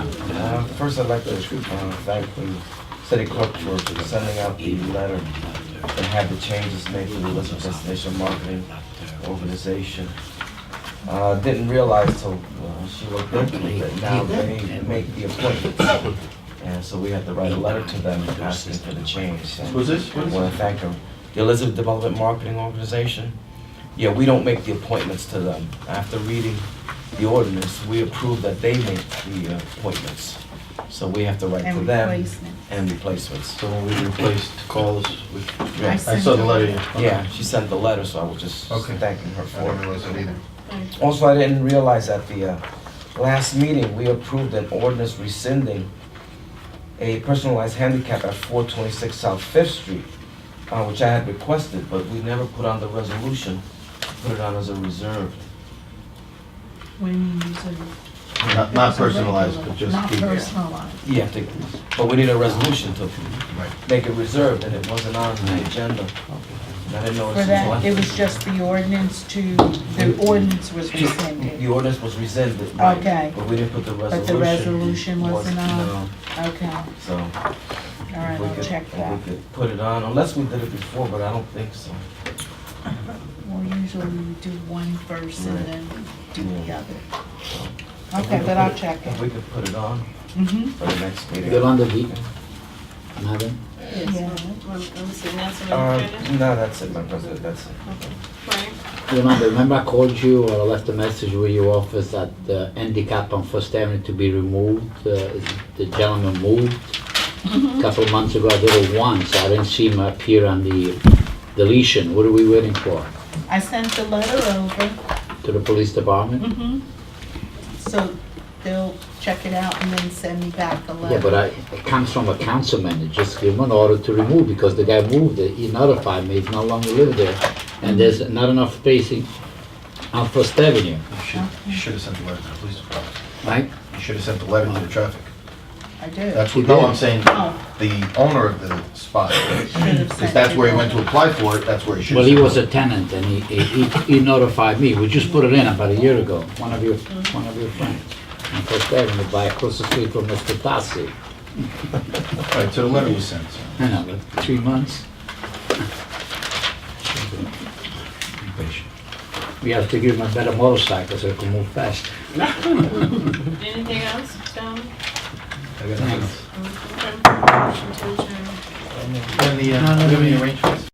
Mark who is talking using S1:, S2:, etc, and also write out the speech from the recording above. S1: Uh, First, I'd like to uh, thank the city clerk for sending out the letter and had the changes made to the list of destination marketing organization. Uh, Didn't realize till uh, she looked into it that now they make the appointments. And so we had to write a letter to them asking for the change. So
S2: Who's this?
S1: I want to thank them. The Elizabeth Development Marketing Organization. Yeah, we don't make the appointments to them. After reading the ordinance, we approve that they make the uh, appointments. So we have to write
S3: And
S1: to them
S3: replacement.
S1: and replacements.
S2: So when we replaced calls with,
S1: Yeah.
S2: I saw the letter. okay.
S1: Yeah, she sent the letter, so I was just
S2: Okay.
S1: thanking her for
S2: I
S1: it.
S2: didn't realize that either.
S1: Also, I didn't realize at the uh, last meeting, we approved an ordinance rescinding a personalized handicap at 426 South Fifth Street, uh, which I had requested, but we never put on the resolution, put it on as a reserve.
S3: What do you mean user?
S2: Not, not personalized, but just.
S3: Not
S2: the-
S3: personalized.
S1: Yeah, to- but we need a resolution to
S2: Right.
S1: make it reserved, and it wasn't on the agenda. And I didn't know
S3: For
S1: it's
S3: that, it
S1: was
S3: was just the ordinance to, the ordinance was
S1: The
S3: rescinded.
S1: ordinance was rescinded, right,
S3: Okay.
S1: but we didn't put the resolution.
S3: But the resolution wasn't on?
S1: no,
S3: Okay, all
S1: So.
S3: right,
S1: We
S3: I'll
S1: could-
S3: check
S1: if
S3: that.
S1: We could put it on, unless we did it before, but I don't think so.
S3: Well, usually we do one first and then do the
S1: Yeah.
S3: other.
S1: so. If we
S3: Okay,
S1: could
S3: but I'll
S1: put it-
S3: check
S1: If
S3: it.
S1: we could put it on
S3: Mm-hmm,
S1: for the next meeting.
S4: Yolanda V. Madam,
S3: Yeah.
S5: Yes, well, let me see,
S1: Uh,
S5: Councilmember Brennan?
S1: no, that's it, my president, that's it.
S5: Frank?
S4: Yolanda, remember I called you or I left a message with your office that the handicap on First Avenue to be removed? uh, The gentleman moved. A Couple of months ago, I did it once. I didn't see him appear on the deletion. What are we waiting for?
S3: I sent the letter over,
S4: To the police department?
S3: mm-hmm. So they'll check it out and then send me back a letter.
S4: Yeah, but I, it comes from a councilman, It just give him an order to remove, because the guy moved, it. he notified me, he's no longer live there, and there's not enough spacing on First Avenue,
S2: You should, you should have sent the letter to the police department.
S4: right?
S2: You should have sent the letter to the traffic.
S3: I do.
S2: That's what,
S4: You
S2: no,
S4: did.
S2: I'm saying,
S3: Oh.
S2: the owner of the spot.
S3: Should've
S2: Because
S3: sent
S2: that's
S3: it
S2: where he went
S3: over.
S2: to apply for it, that's where he should
S4: Well,
S2: have.
S4: he was a tenant, and he, he, he notified me, we just put it in about a year ago, one of your, one of your friends, on First Avenue, by across the street from Mr. Tassi,
S2: All right, so the letter was sent. so.
S4: I know, like three months.
S2: Be patient.
S4: We have to give him a better motorcycle so he can move fast.
S5: Anything else, gentlemen?
S2: I got nothing else.
S5: Okay. Motion to adjourn.
S2: And the, uh, do you have any arrangements?